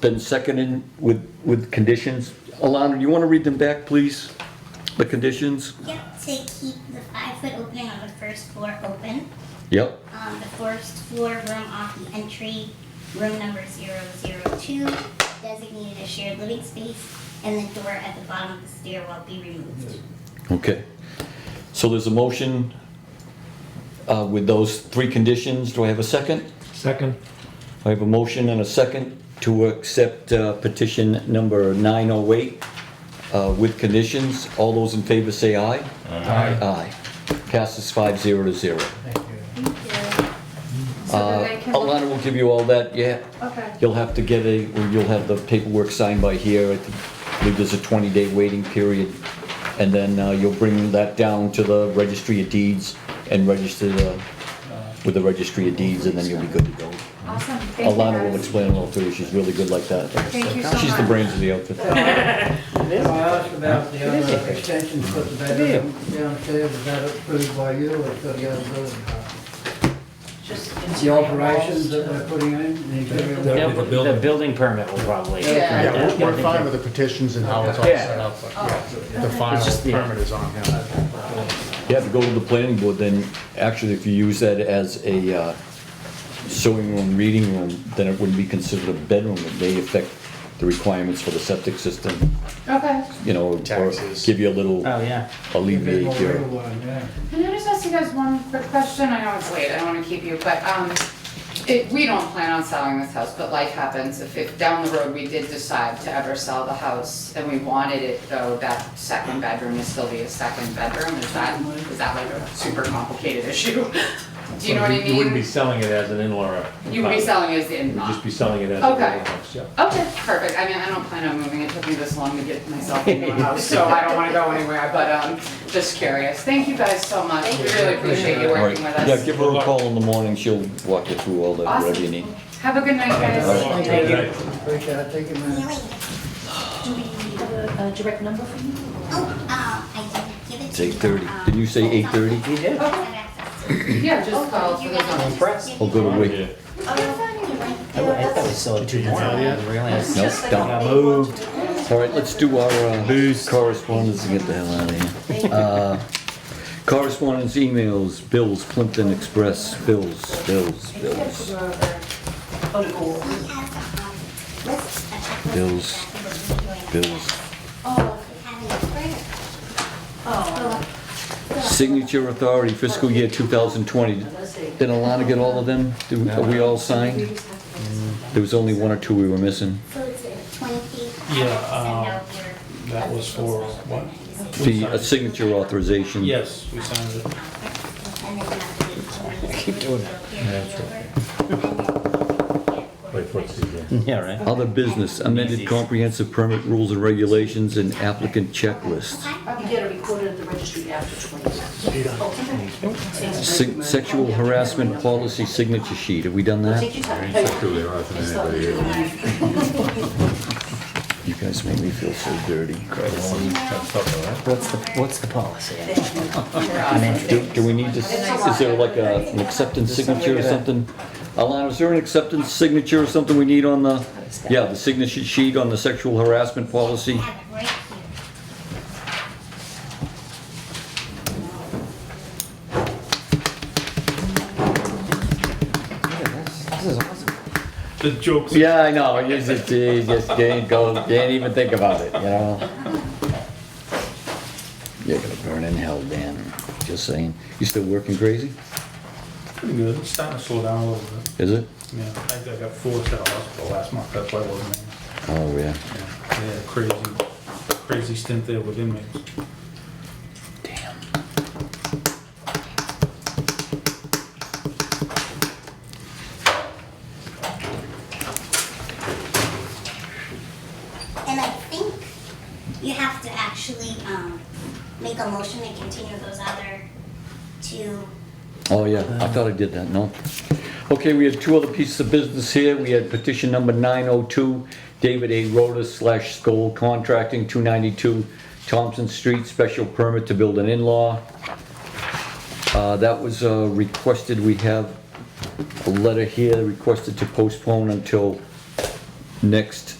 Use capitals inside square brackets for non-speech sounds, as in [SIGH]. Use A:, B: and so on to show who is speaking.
A: been seconded with, with conditions. Alana, do you want to read them back, please? The conditions?
B: Yep, to keep the five-foot opening on the first floor open,
A: Yep,
B: um, the first floor room off the entry, room number 002, designated as shared living space, and the door at the bottom of the stairwell be removed.
A: okay. So there's a motion uh, with those three conditions. Do I have a second?
C: Second.
A: I have a motion and a second to accept uh, petition number 908 uh, with conditions. All those in favor say aye.
C: Aye.
A: Aye. Passes five zero to zero.
D: So
A: Uh,
D: that I can
A: Alana will give you all that, yeah.
D: Okay.
A: You'll have to get a, or you'll have the paperwork signed by here. I think- I believe there's a 20-day waiting period. And then uh, you'll bring that down to the registry of deeds and register the- uh, with the registry of deeds, and then you'll be good to go.
D: Awesome, thank you
A: Alana will
D: guys.
A: explain it all to you. She's really good like that.
D: Thank you so
A: She's the
D: much.
A: brains of the outfit.
E: If I ask about the other extension for the bedroom downstairs, is that approved by you or for the other building? The alterations that they're putting in? the interior-
C: Yeah.
F: The bu- the building permit will probably.
D: Yeah.
G: Yeah, we're- we're fine with the petitions and how it's all set up, but yeah, the final
F: just the-
G: permit is on him.
A: You have to go to the planning board, then actually if you use that as a uh, sewing room, reading room, then it wouldn't be considered a bedroom. It may affect the requirements for the septic system,
D: Okay.
A: you know, or
G: Taxes.
A: give you a little
F: Oh, yeah.
A: alleviate your,
D: Can I just ask you guys one quick question? I know it's late, I don't wanna keep you, but, um, it, we don't plan on selling this house, but life happens. If it, down the road, we did decide to ever sell the house and we wanted it though, that second bedroom to still be a second bedroom, is that, is that like a super complicated issue? [LAUGHS] Do you know what I mean?
H: You wouldn't be selling it as an in-law.
D: You would be
H: apartment.
D: selling it as the
H: You'd
D: in-law.
H: just be selling it as a
D: Okay.
H: regular house, yeah.
D: Okay, perfect. I mean, I don't plan on moving. It took me this long to get myself into a house, so I don't wanna go anywhere, but, um, just curious. Thank you guys so much. We really appreciate you
A: all right.
D: working with us.
A: Yeah, give her a call in the morning, she'll walk you through all that, whatever you need.
D: Awesome. Have a good night, guys.
A: All right.
E: Thank you.
H: Right.
E: Appreciate it, thank you, man.
B: Really,
I: Do we have
B: uh,
I: a, a direct number for you?
B: oh, um, I did give it
A: uh, It's
B: to you.
A: 8:30.
B: um,
A: Did you say 8:30?
B: I
F: did.
B: have access to it.
D: Yeah, just call for
B: You
D: the
B: guys
D: phone.
B: just
F: Press.
B: give
A: I'll
B: me
A: go to
B: one.
A: Wig.
F: I I thought we sold it to you. I didn't realize.
A: Nope, done.
F: Got moved.
A: All right, let's do our uh, correspondence and get the hell out of here. Uh, Correspondence, emails, bills, Plimpton Express, bills, bills, bills.
B: We have, um, list, a checklist of
A: Bills.
B: exactly what we're doing.
A: Bills.
I: Oh,
B: Having a prayer.
I: oh,
A: Signature authority fiscal year 2020. Did
I: let's see.
A: Alana get all of them? Did we- Are we all signed? There was only one or two we were missing.
B: So it's a twenty.
H: Yeah,
B: Send
H: um,
B: out your.
H: that was for what?
A: The uh, signature authorization.
H: Yes, we signed it.
B: I keep doing that.
H: Wait for it to begin.
F: Yeah, right.
A: Other business, amended comprehensive permit rules and regulations and applicant checklist.
I: You get it recorded at the registry after twenty years.
A: Se- Sexual harassment policy signature sheet. Have we done that?
I: Take your time.
A: You guys make me feel so dirty.
F: What's the, what's the policy?
A: Do, do we need to, is there like a, an acceptance signature or something? Alana, is there an acceptance signature or something we need on the, yeah, the signature sheet on the sexual harassment policy?
B: Have it right here.
F: This is awesome.
H: The joke's
A: Yeah, I know, you just, you just can't go, can't even think about it, you know? You're gonna burn in hell, Dan, just saying. You still working crazy?
H: pretty good. It's starting to slow down a little bit.
A: Is it?
H: Yeah, I think I got forced out of hospital last month. That's why I wasn't in.
A: Oh, yeah.
H: Yeah, They had a crazy, crazy stint there with inmates.
A: Damn.
B: And I think you have to actually, um, make a motion to continue those other two.
A: Oh, yeah, I thought I did that, no. Okay, we have two other pieces of business here. We had petition number 902, David A. Rhoda slash Skoll Contracting, 292 Thompson Street, special permit to build an in-law. Uh, That was uh, requested, we have a letter here requested to postpone until Next